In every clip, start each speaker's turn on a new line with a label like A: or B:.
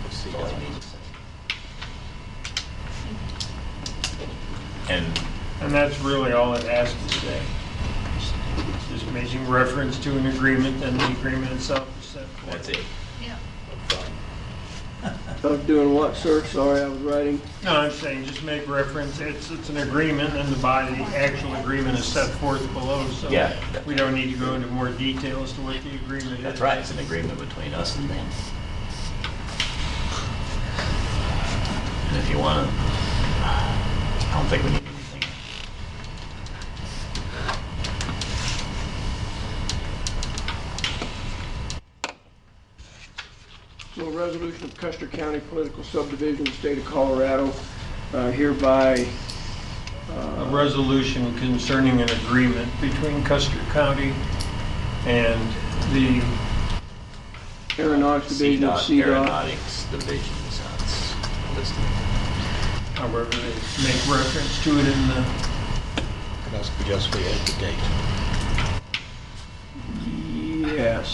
A: agency government.
B: And
C: And that's really all it asks to say. Just making reference to an agreement, and the agreement itself is set forth.
B: that's it.
D: Yeah.
E: I'm doing what, sir? Sorry, I was writing.
C: No, I'm saying just make reference, it's, it's an agreement and the body, the actual agreement is set forth below, so
B: Yeah.
C: we don't need to go into more detail as to what the agreement is.
B: That's right, it's an agreement between us and them. And if you want to, I don't think we need anything.
E: So a resolution of Custer County Political Subdivision, of the State of Colorado uh, hereby,
C: A resolution concerning an agreement between Custer County and the,
E: Aeronautics Division of
B: CDOT,
E: CDOT.
B: Aeronautics Division, is how it's listed.
C: however, they make reference to it in the,
A: And that's because we had the date.
E: Yes.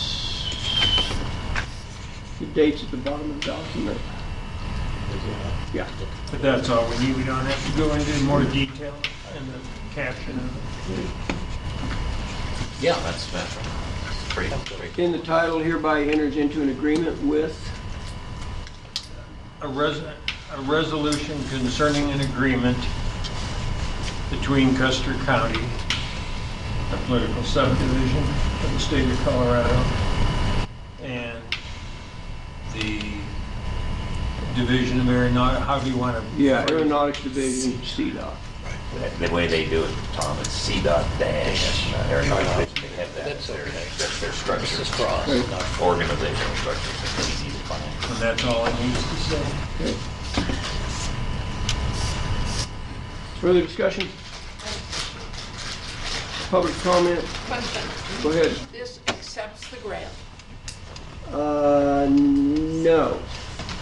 E: The date's at the bottom of the document. Yeah.
C: but that's all we need. We don't have to go into more detail in the caption of it.
B: Yeah, that's, that's pretty, pretty.
E: In the title hereby enters into an agreement with,
C: a res, a resolution concerning an agreement between Custer County, a political subdivision of the state of Colorado, and the Division of Aeronautics, how do you want to?
E: yeah, Aeronautics Division, CDOT.
B: The way they do it, Tom, it's CDOT dash Aeronautics, they have that as their, that's their
A: This
B: structure,
A: is cross, not
B: organizational structure, it's easy to find.
C: And that's all it needs to say.
E: Okay. Further discussion? Public comment?
D: Question,
E: Go ahead.
D: this accepts the grant.
E: Uh, no.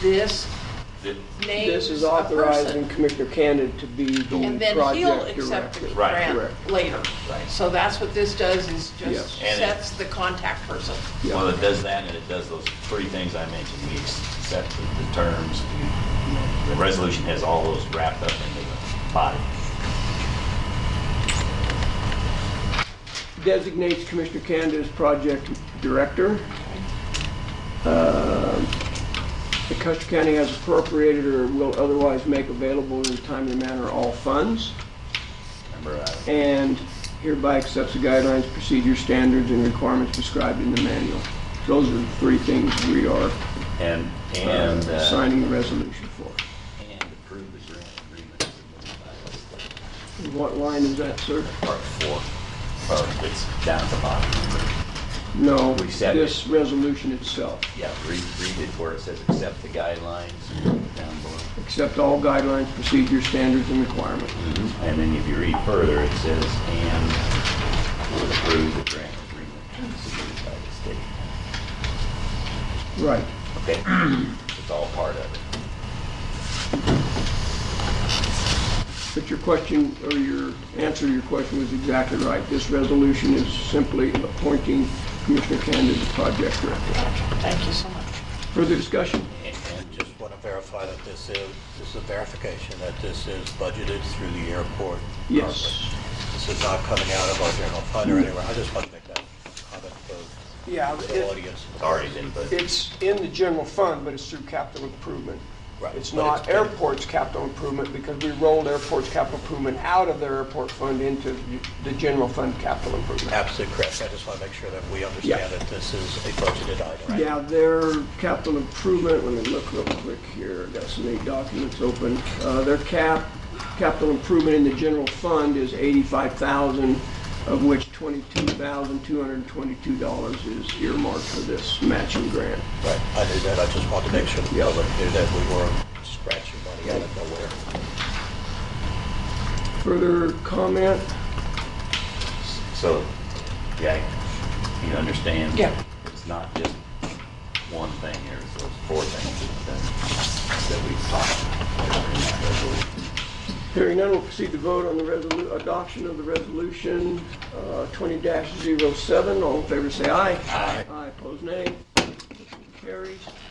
D: This
B: The-
D: names
E: This is
D: a
E: authorizing
D: person.
E: Commissioner Candid to be the
D: And then he'll
E: project
D: accept the
E: director.
B: Right.
D: grant
E: Correct.
D: later. So that's what this does, is just
E: Yes.
B: And it-
D: sets the contact person.
E: Yeah.
B: Well, it does that, and it does those three things I mentioned. We accept the the terms. The resolution has all those wrapped up into the body.
E: Designates Commissioner Candid as project director. Uh, The Custer County has appropriated or will otherwise make available in a timely manner all funds.
B: Remember, uh,
E: and hereby accepts the guidelines, procedures, standards, and requirements prescribed in the manual. Those are the three things we are
B: and, and,
E: uh,
B: uh,
E: signing the resolution for.
B: and approve the grant agreement as submitted by legislature.
E: What line is that, sir?
B: Part four, or it's down at the bottom.
E: No,
B: We said
E: this resolution itself.
B: Yeah, read, read it where it says accept the guidelines down below.
E: Accept all guidelines, procedures, standards, and requirements.
B: And then if you read further, it says, and will approve the grant agreement submitted by the state.
E: Right.
B: Okay, it's all part of it.
E: But your question, or your answer to your question was exactly right. This resolution is simply appointing Commissioner Candace as project director.
D: Thank you so much.
E: Further discussion?
B: And-
A: And just want to verify that this is, this is a verification that this is budgeted through the airport.
E: Yes.
A: currently. This is not coming out of our general fund or anywhere. I just want to make that comment for
E: Yeah,
A: the audience.
B: It's already been budgeted.
E: It's in the general fund, but it's through capital improvement.
A: Right,
E: It's
A: but
E: not
A: it's been-
E: airport's capital improvement, because we rolled airport's capital improvement out of their airport fund into the general fund capital improvement.
A: Absolutely correct. I just want to make sure that we understand
E: Yeah.
A: that this is a budgeted item.
E: Yeah, their capital improvement, let me look real quick here, I've got so many documents open. Uh, Their cap, capital improvement in the general fund is 85,000, of which $22,222 is earmarked for this matching grant.
A: Right, I knew that. I just wanted to make sure the
E: Yeah.
A: public knew that we weren't scratching money out of nowhere.
E: Further comment?
B: So, yeah, you understand?
D: Yeah.
B: It's not just one thing, there's those four things that, that we've talked about. in that resolution.
E: Hearing none, we'll proceed to vote on the resolu, adoption of the resolution uh, 20-07. All in favor, say aye. Aye. Aye, opposed, nay. Motion Carries.